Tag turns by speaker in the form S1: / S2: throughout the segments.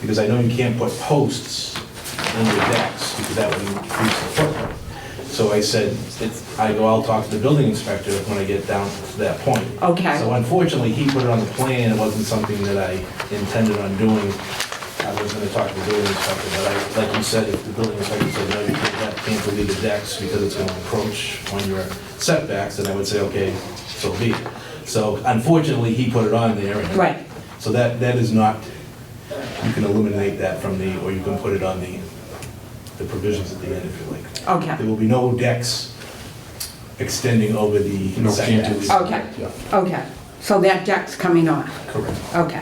S1: Because I know you can't put posts under decks, because that would increase the footprint. So I said, it's- I go, I'll talk to the building inspector when I get down to that point.
S2: Okay.
S1: So unfortunately, he put it on the plan, it wasn't something that I intended on doing. I was gonna talk to the building inspector, but I, like you said, if the building inspector said, no, you can't, can't delete the decks because it's gonna encroach on your setbacks, then I would say, okay, so be it. So unfortunately, he put it on there. and-
S2: Right.
S1: So that, that is not, you can eliminate that from the, or you can put it on the, the provisions at the end if you like.
S2: Okay.
S1: There will be no decks extending over the
S3: No
S1: setbacks.
S3: cantilever.
S2: Okay,
S3: Yeah.
S2: okay. So that deck's coming off,
S1: Correct.
S2: okay.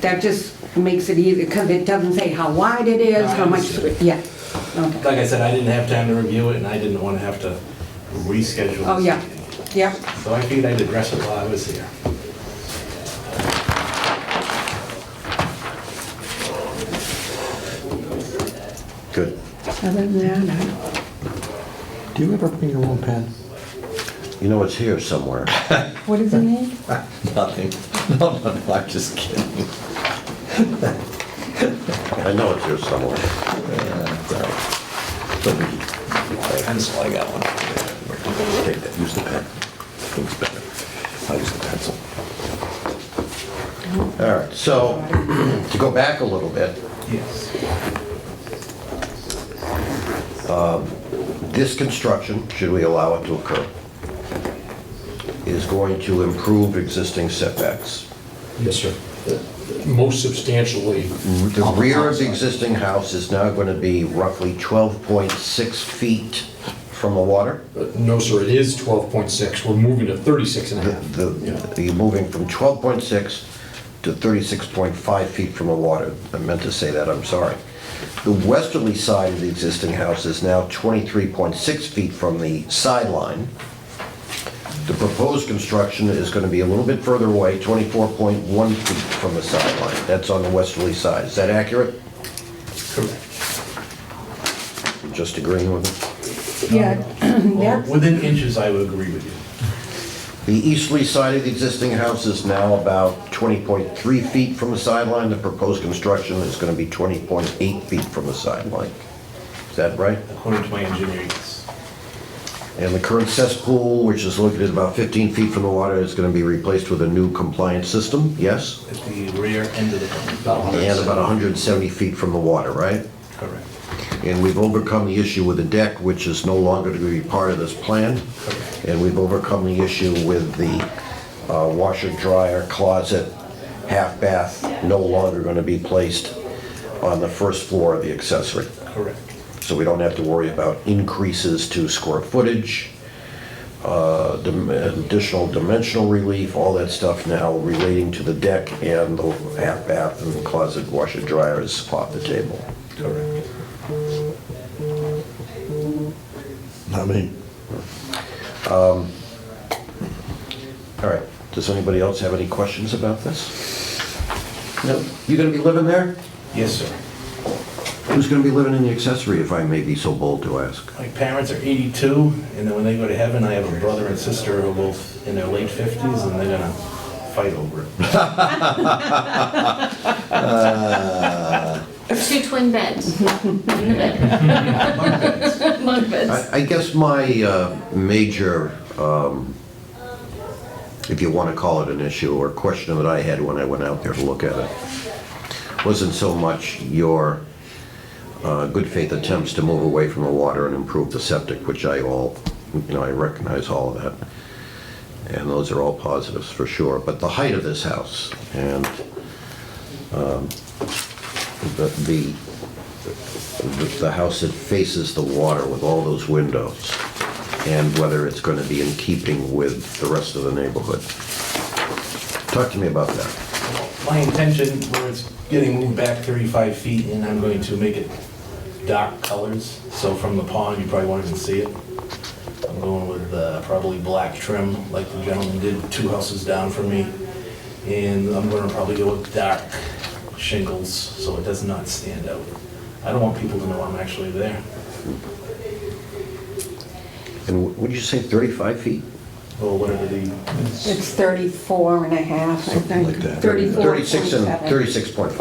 S2: That just makes it easy, because it doesn't say how wide it is, how much,
S1: No, I
S2: yeah, okay.
S1: Like I said, I didn't have time to review it, and I didn't want to have to reschedule. this
S2: Oh, yeah,
S1: meeting.
S2: yeah.
S1: So I figured I'd address it while I was here.
S4: Good.
S2: Other than that, I-
S3: Do you ever bring your own pen?
S4: You know, it's here somewhere.
S2: what is the name?
S4: Nothing. No, no, no, I'm just kidding. I know it's here somewhere. Pencil, I got one. Take that, use the pen. Looks better. I'll use the pencil. All right, so to go back a little bit,
S1: Yes.
S4: this construction, should we allow it to occur, is going to improve existing setbacks.
S3: Yes, sir. Most substantially.
S4: The rear of the existing house is now going to be roughly 12.6 feet from the water.
S3: Uh, No, sir, it is 12.6. We're moving to 36 and a half.
S4: The, you're moving from 12.6 to 36.5 feet from the water. I meant to say that, I'm sorry. The westerly side of the existing house is now 23.6 feet from the sideline. The proposed construction is going to be a little bit further away, 24.1 feet from the sideline. That's on the westerly side. Is that accurate?
S1: Correct.
S4: Just agreeing with it?
S2: Yeah,
S1: Well,
S2: that's,
S1: Within inches, I would agree with you.
S4: The easterly side of the existing house is now about 20.3 feet from the sideline. The proposed construction is going to be 20.8 feet from the sideline. Is that right?
S1: According to my engineering, it's
S4: And the current cesspool, which is located about 15 feet from the water, is going to be replaced with a new compliance system, yes?
S1: at the rear end of the building.
S3: About
S4: And
S3: 100.
S4: about 170 feet from the water, right?
S1: Correct.
S4: And we've overcome the issue with the deck, which is no longer to be part of this plan. And we've overcome the issue with the uh, washer, dryer, closet, half bath, no longer going to be placed on the first floor of the accessory.
S1: Correct.
S4: So we don't have to worry about increases to square footage, uh, dim- additional dimensional relief, all that stuff now relating to the deck and the half bath and closet, washer, dryer is off the table.
S1: Correct.
S4: Not me. Um, All right, does anybody else have any questions about this? No, you gonna be living there?
S1: Yes, sir.
S4: Who's gonna be living in the accessory, if I may be so bold to ask?
S1: My parents are 82, and then when they go to heaven, I have a brother and sister who are both in their late 50s, and they're gonna fight over it.
S5: Two twin beds. In the bed. Bunk beds.
S4: I I guess my uh, major, um, if you wanna call it an issue, or question that I had when I went out there to look at it, wasn't so much your uh, good faith attempts to move away from the water and improve the septic, which I all, you know, I recognize all of that. And those are all positives for sure, but the height of this house and um, the, the, the- the house that faces the water with all those windows and whether it's going to be in keeping with the rest of the neighborhood. Talk to me about that.
S1: My intention, where it's getting moved back 35 feet, and I'm going to make it dark colors, so from the pond, you probably won't even see it. I'm going with uh, probably black trim, like the gentleman did two houses down from me, and I'm gonna probably go with dark shingles, so it does not stand out. I don't want people to know I'm actually there.
S4: And would you say 35 feet?
S1: or whatever the,
S2: it's 34 and a half, I think.
S4: Like that.
S2: 34,
S4: 36 and,
S2: 27.
S4: 36.5.